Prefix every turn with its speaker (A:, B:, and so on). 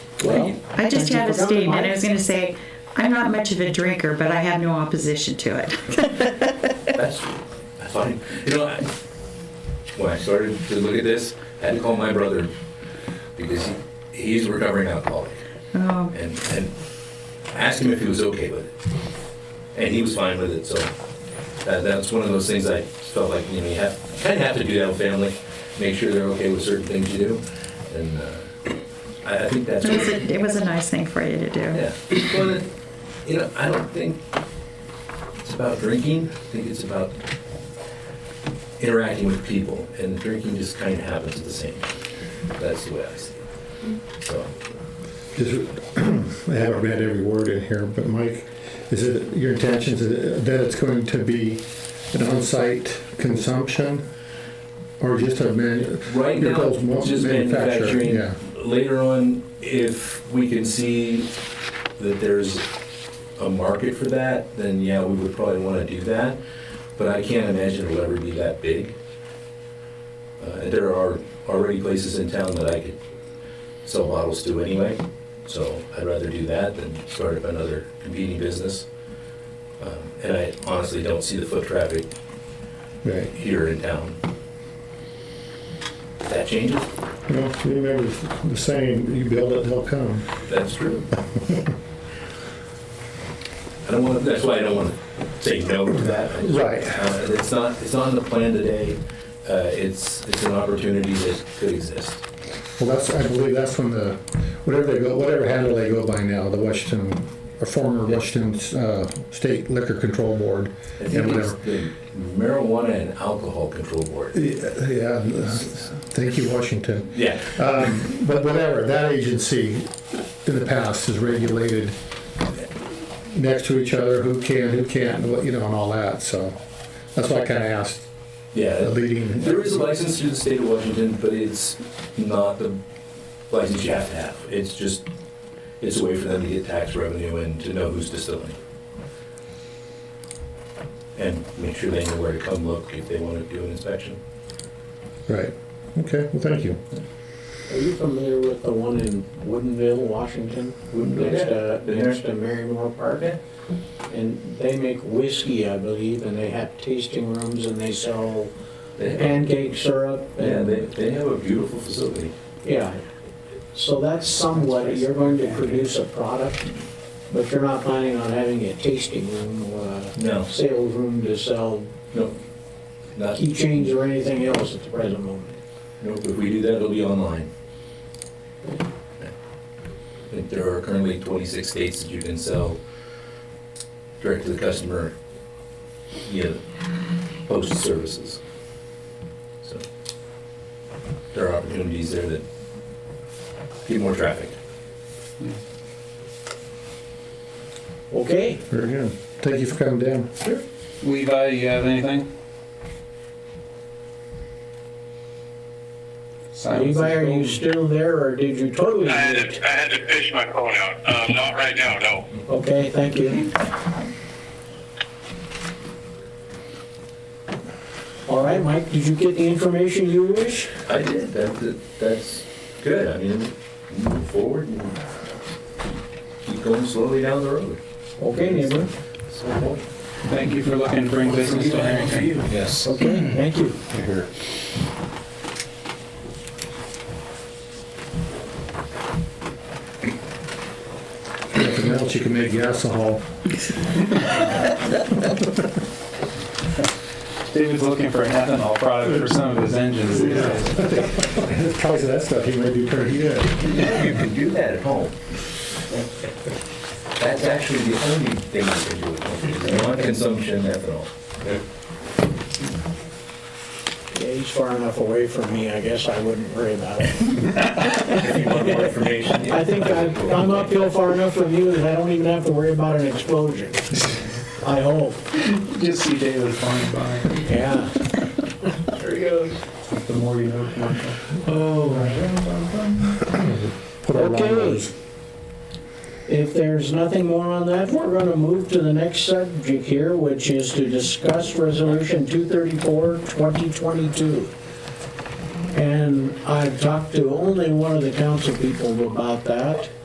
A: I
B: don't
A: just had a
B: drink a lot.
A: statement. I was going to say, I'm not much of a drinker, but I have no opposition to it.
C: That's fine. You know, I, when I started to look at this, I had to call my brother because he, he's a recovering alcoholic
A: Oh,
C: and, and asked him if he was okay with it. And he was fine with it. So that, that's one of those things I felt like you, know, you have, kind of have to do that with family, make sure they're okay with certain things you do. And uh, I, I think that's.
A: it was, a, it was a nice thing for you to do.
C: Yeah. Well, it- you know, I don't think it's about drinking. I think it's about interacting with people, and drinking just kind of happens at the same time. That's the way I see it. So,
D: Is- I haven't read every word in here, but Mike, is it your intention is that it's going to be an on-site consumption? Or just a man?
C: right
D: your
C: now,
D: goal's mo-
C: just manufacturing.
D: Yeah,
C: Later on, if we can see that there's a market for that, then yeah, we would probably want to do that. But I can't imagine it'll ever be that big. Uh, there are already places in town that I could sell bottles to anyway, so I'd rather do that than start up another competing business. Um, and I honestly don't see the foot traffic
D: right.
C: here in town. If that changes,
D: Well, you remember the saying, you build it, they'll come.
C: That's true. I don't want, that's why I don't want to say no to that. I just-
D: Right.
C: Uh, It's not, it's not in the plan today. Uh, It's, it's an opportunity that could exist.
D: Well, that's, I believe that's from the, whatever they go, whatever handle they go by now, the Washington, or former Washington uh, State Liquor Control Board.
C: I
D: and
C: think it's
D: whatever.
C: the marijuana and alcohol control board.
D: Yeah, yeah, thank you, Washington.
C: Yeah,
D: Um, But whatever, that agency in the past has regulated next to each other, who can, who can't, and what- you know, and all that, so. That's why I kind of asked,
C: yeah.
D: the leading,
C: There is a license through the state of Washington, but it's not the license you have to have. It's just, it's a way for them to get tax revenue and to know who's distilling. And make sure they know where to come look if they want to do an inspection.
D: right, okay, well, thank you.
E: Are you familiar with the one in Woodinville, Washington?
C: Woodinville,
E: Next
C: yeah.
E: to,
C: Been there.
E: next to Marymore Park?
C: Yeah.
E: And they make whiskey, I believe, and they have tasting rooms and they sell
C: They have-
E: pancake syrup.
C: Yeah,
E: and-
C: they, they have a beautiful facility.
E: Yeah. So that's somewhat, you're going to produce a product, but you're not planning on having a tasting room or
C: No,
E: a sales room to sell
C: no, not,
E: keychains or anything else at the present moment.
C: no, if we do that, it'll be online. I think there are currently twenty-six states that you can sell direct to the customer via postal services. So there are opportunities there that get more traffic.
E: Okay?
D: Very good. Thank you for coming down.
F: Levi, you have anything? Silence
E: Levi, are you
F: is golden.
E: still there or did you totally?
G: I had
E: mute?
G: to, I had to fish my phone out. Um, not right now, no.
E: Okay, thank you. All right, Mike, did you get the information you wish?
C: I did, that, that- that's good, I mean, move forward and keep going slowly down the road.
E: Okay, neighbor.
C: So,
F: Thank you for looking to bring business to Harrington.
C: Yes.
E: Okay, thank you.
D: Nothing else, you can make gasohol.
F: David's looking for an ethanol product for some of his engines these days.
D: Price of that stuff, he may be pretty good.
C: You can do that at home. That's actually the only thing you can do at home, is non-consumption ethanol.
E: Yeah, he's far enough away from me, I guess I wouldn't worry about it.
C: If you want more information. yeah.
E: I think I'm I'm uphill far enough from you that I don't even have to worry about an explosion. I hope,
F: Just see David flying by.
E: yeah.
F: There he goes. The more you know. Michael.
D: Put our
E: Okay.
D: lawnmowers-
E: If there's nothing more on that, we're going to move to the next subject here, which is to discuss Resolution 234, 2022. And I've talked to only one of the council people about that,